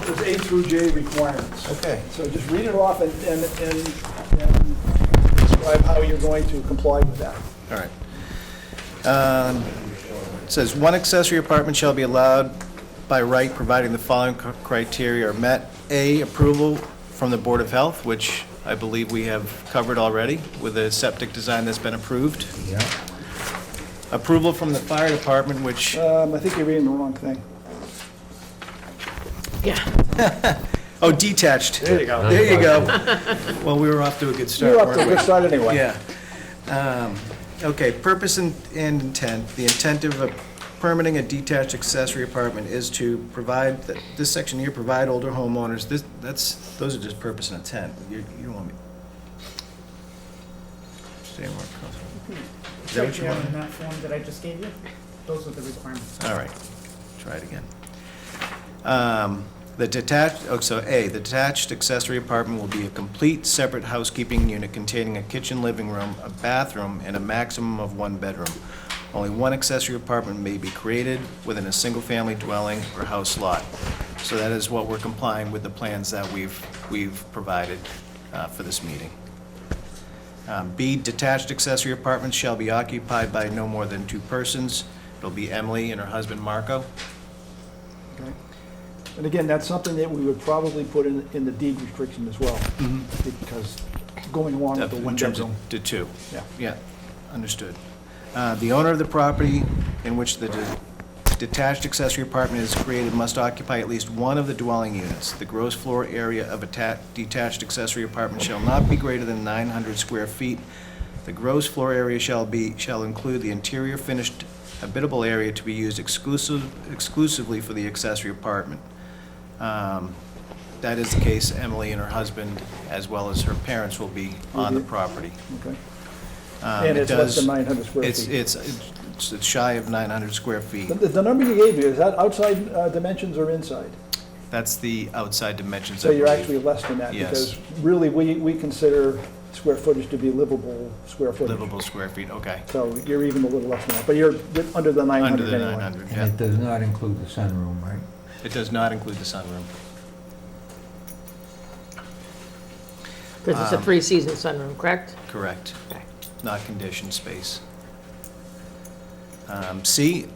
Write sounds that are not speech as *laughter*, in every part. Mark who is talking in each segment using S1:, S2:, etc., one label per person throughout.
S1: through J requirements.
S2: Okay.
S1: So just read it off and, and, and- and describe how you're going to comply with that.
S2: All right. Um, It says, "One accessory apartment shall be allowed by right providing the following cr- criteria are met. A, approval from the Board of Health, which I believe we have covered already with a septic design that's been approved.
S3: Yeah.
S2: Approval from the fire department, which,
S1: Um, I think you're reading the wrong thing.
S2: oh, detached. There you go. There you *laughs* go. Well, we were off to a good start,
S1: You're up
S2: weren't
S1: to a
S2: we?
S1: good start anyway.
S2: Yeah. Um, Okay, purpose and and intent. The intent of a- permitting a detached accessory apartment is to provide, th- this section here, provide older homeowners, this, that's, those are just purpose and intent. You you don't want me. Stay more comfortable. Is that
S4: Right
S2: what you
S4: there
S2: want?
S4: in that form that I just gave you, those are the requirements.
S2: All right, try it again. Um, The detached, oh, so A, the detached accessory apartment will be a complete separate housekeeping unit containing a kitchen, living room, a bathroom, and a maximum of one bedroom. Only one accessory apartment may be created within a single-family dwelling or house lot. So that is what we're complying with the plans that we've, we've provided uh, for this meeting. Um, B, detached accessory apartments shall be occupied by no more than two persons. It'll be Emily and her husband Marco.
S1: Okay. And again, that's something that we would probably put in, in the deed restriction as well. Because going along with
S2: Mm-hmm.
S1: the
S2: uh, In
S1: one
S2: terms of
S1: bedroom.
S2: The two.
S1: Yeah.
S2: Yeah, understood. Uh, The owner of the property in which the de- detached accessory apartment is created must occupy at least one of the dwelling units. The gross floor area of a ta- detached accessory apartment shall not be greater than 900 square feet. The gross floor area shall be, shall include the interior finished habitable area to be used exclusive, exclusively for the accessory apartment. Um, That is the case, Emily and her husband, as well as her parents, will be on the property.
S1: Okay.
S2: Um,
S1: And
S2: it
S1: it's
S2: does-
S1: less than 900 square
S2: it's-
S1: feet.
S2: It's, it's, it's shy of 900 square feet.
S1: The, the number you gave me, is that outside uh, dimensions or inside?
S2: That's the outside dimensions.
S1: So
S2: I
S1: you're
S2: believe.
S1: actually less than that?
S2: Yes.
S1: Because really, we, we consider square footage to be livable square footage.
S2: Livable square feet, okay.
S1: So you're even a little less than that, but you're you're under the
S2: Under
S1: 900
S2: the
S1: anyway.
S2: 900, yeah.
S3: And it does not include the sunroom, right?
S2: It does not include the sunroom.
S5: Because it's a three-season sunroom, correct?
S2: Correct.
S5: Okay.
S2: Not conditioned space. Um, C,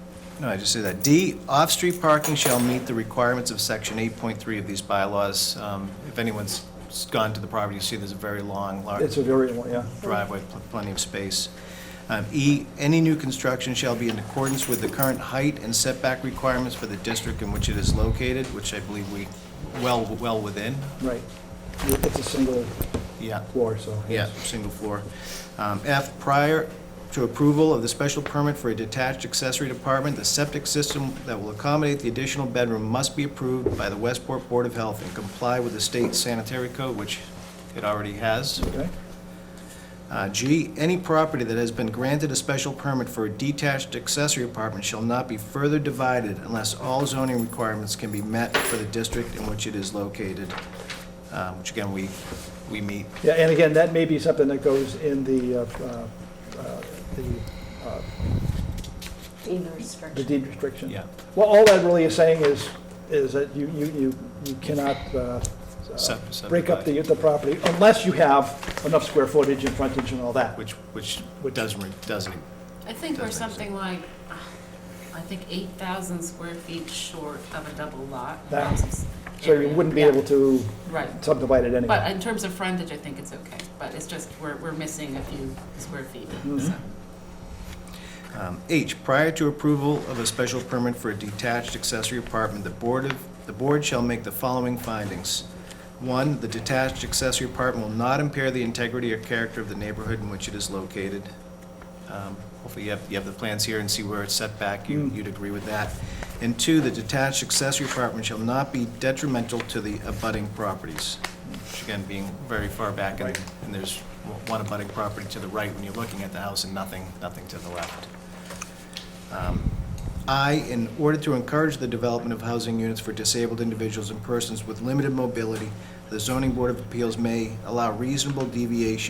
S2: no, I just said that. D, off-street parking shall meet the requirements of section 8.3 of these bylaws. Um, If anyone's gone to the property, you see there's a very long, large.
S1: It's a variable, yeah.
S2: driveway, pl- plenty of space. Um, E, any new construction shall be in accordance with the current height and setback requirements for the district in which it is located, which I believe we, well, well within,
S1: Right. It's a single
S2: yeah.
S1: floor, so.
S2: Yeah, single floor. Um, F, prior to approval of the special permit for a detached accessory apartment, the septic system that will accommodate the additional bedroom must be approved by the Westport Board of Health and comply with the state sanitary code, which it already has.
S1: Okay.
S2: Uh, G, any property that has been granted a special permit for a detached accessory apartment shall not be further divided unless all zoning requirements can be met for the district in which it is located, uh, which again, we, we meet.
S1: Yeah, and again, that may be something that goes in the, uh, uh, uh, the, uh,
S6: Deed
S1: the
S6: restriction.
S1: deed restriction. Well, all that really is saying is, is that you, you, you you cannot uh, uh,
S2: Sub-
S1: break up the,
S2: subdivide.
S1: the property unless you have enough square footage and frontage and all that.
S2: Which, which
S1: Which-
S2: doesn't, re- doesn't,
S6: I think we're
S2: Does make
S6: something like, uh, I think eight thousand square feet short of a double lot.
S1: That-
S6: lots of s-
S1: So you
S6: area.
S1: wouldn't be
S6: Yeah,
S1: able to
S6: Right,
S1: subdivide it anyway.
S6: but in terms of frontage, I think it's okay, but it's just, we're, we're missing a few square feet,
S1: Mm-hmm.
S6: so.
S2: Um, H, prior to approval of a special permit for a detached accessory apartment, the board of, the board shall make the following findings. One, the detached accessory apartment will not impair the integrity or character of the neighborhood in which it is located. Um, Hopefully you have, you have the plans here and see where it's set back, you, you'd agree with that. And two, the detached accessory apartment shall not be detrimental to the abutting properties, which again, being very far back, and, and there's one abutting property to the right when you're looking at the house and nothing, nothing to the left. Um, I, in order to encourage the development of housing units for disabled individuals and persons with limited mobility, the zoning board of appeals may allow reasonable deviation